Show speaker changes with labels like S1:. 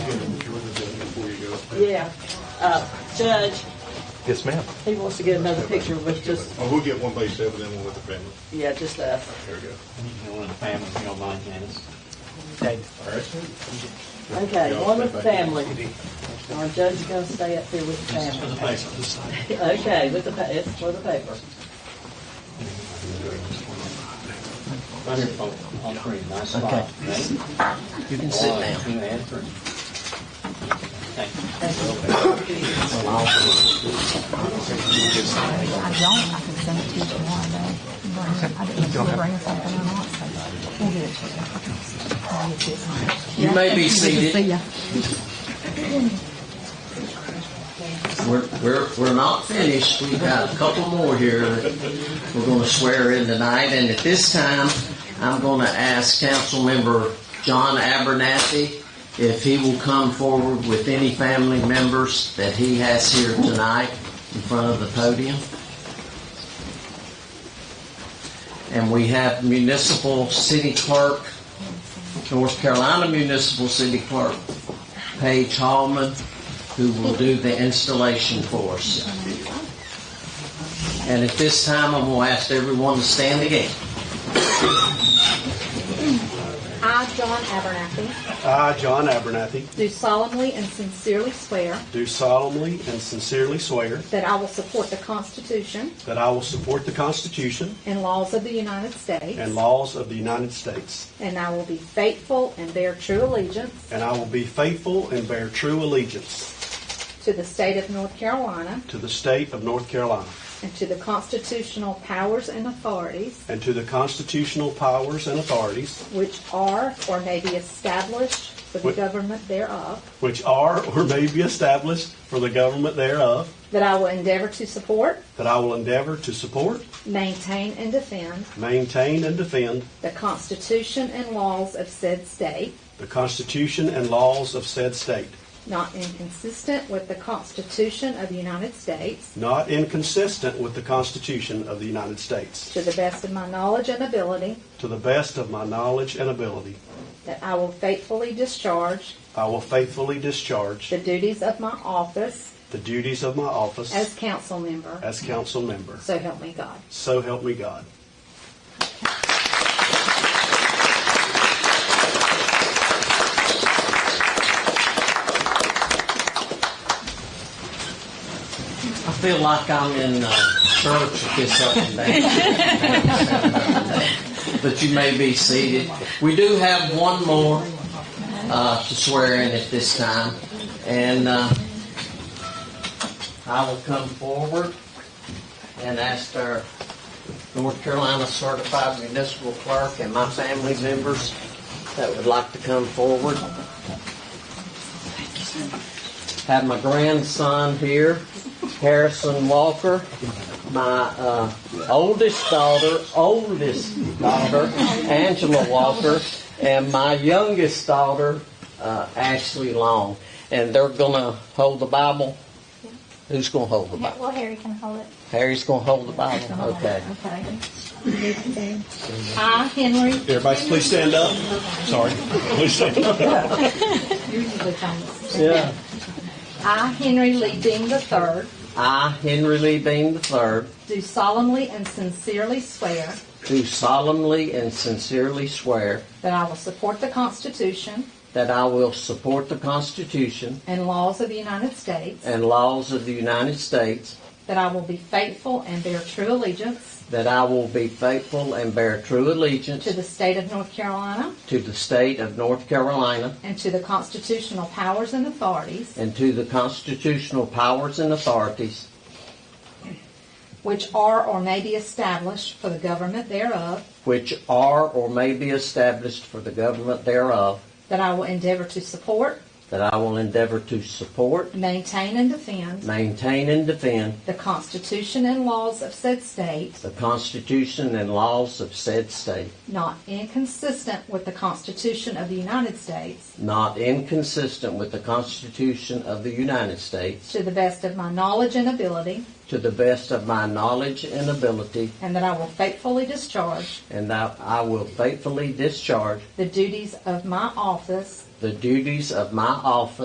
S1: Yeah. Uh, Judge,
S2: Yes, ma'am.
S1: he wants to get another picture with just,
S3: Oh, we'll get one by yourself and then one with the family.
S1: yeah, just us.
S3: There we go.
S4: You know, one of the families, you don't mind, Janice.
S1: Okay, one with the family. Our judge is gonna stay up here with the
S4: This is for the
S1: family.
S4: paper. This side.
S1: Okay, with the, pa- it's for the paper.
S4: Wonderful, all three, nice spot. You can sit now. Two and three. Thank you.
S5: I don't, I can send it to you tomorrow, though. I didn't know if you were bringing something or not, so we'll get it to you. I'll get you some.
S6: You may be
S5: Good to see
S6: seated.
S5: ya.
S6: We're, we're, we're not finished. We've got a couple more here that we're going to swear in tonight. And at this time, I'm going to ask Councilmember John Abernathy if he will come forward with any family members that he has here tonight in front of the podium. And we have municipal city clerk, North Carolina Municipal City Clerk Paige Hallman, who will do the installation for us. And at this time, I'm going to ask everyone to stand again.
S7: I, John Abernathy,
S8: I, John Abernathy,
S7: do solemnly and sincerely swear
S8: do solemnly and sincerely swear
S7: that I will support the Constitution
S8: that I will support the Constitution
S7: and laws of the United States,
S8: and laws of the United States,
S7: and I will be faithful and bear true allegiance
S8: and I will be faithful and bear true allegiance
S7: to the state of North Carolina
S8: to the state of North Carolina
S7: and to the constitutional powers and authorities
S8: and to the constitutional powers and authorities
S7: which are or may be established for the
S8: Wait.
S7: government thereof,
S8: which are or may be established for the government thereof,
S7: that I will endeavor to support,
S8: that I will endeavor to support,
S7: maintain, and defend
S8: maintain, and defend
S7: the Constitution and laws of said state,
S8: the Constitution and laws of said state,
S7: not inconsistent with the Constitution of the United States,
S8: not inconsistent with the Constitution of the United States,
S7: To the best of my knowledge and ability,
S8: to the best of my knowledge and ability.
S7: that I will faithfully discharge
S8: I will faithfully discharge
S7: the duties of my office
S8: the duties of my
S7: as
S8: office
S7: council member.
S8: as council member.
S7: So help me God.
S8: So help me God.
S6: I feel like I'm in uh, church with this up and down. But you may be seated. We do have one more uh, to swear in at this time. And uh, I will come forward and ask our North Carolina certified municipal clerk and my family members that would like to come forward. Have my grandson here, Harrison Walker, my uh, oldest daughter, oldest daughter, Angela Walker, and my youngest daughter, uh, Ashley Long. And they're gonna hold the Bible. Who's gonna hold the Bible?
S5: Well, Harry can hold it.
S6: Harry's gonna hold the Bible. Okay.
S5: Okay.
S7: I, Henry
S8: Everybody, please stand up. Sorry. Please stand up.
S6: Yeah.
S7: I, Henry Lee Dean III,
S6: I, Henry Lee Bean III,
S7: do solemnly and sincerely swear
S6: do solemnly and sincerely swear
S7: that I will support the Constitution
S6: that I will support the Constitution
S7: and laws of the United States,
S6: and laws of the United States,
S7: that I will be faithful and bear true allegiance
S6: that I will be faithful and bear true allegiance
S7: to the state of North Carolina
S6: to the state of North Carolina
S7: and to the constitutional powers and authorities
S6: and to the constitutional powers and authorities
S7: which are or may be established for the government thereof,
S6: which are or may be established for the government thereof,
S7: that I will endeavor to support,
S6: that I will endeavor to support,
S7: maintain, and defend
S6: maintain, and defend
S7: the Constitution and laws of said state,
S6: the Constitution and laws of said state,
S7: not inconsistent with the Constitution of the United States,
S6: not inconsistent with the Constitution of the United States,
S7: to the best of my knowledge and ability,
S6: to the best of my knowledge and ability,
S7: and that I will faithfully discharge
S6: and that I will faithfully discharge
S7: the duties of my office
S6: the duties of my office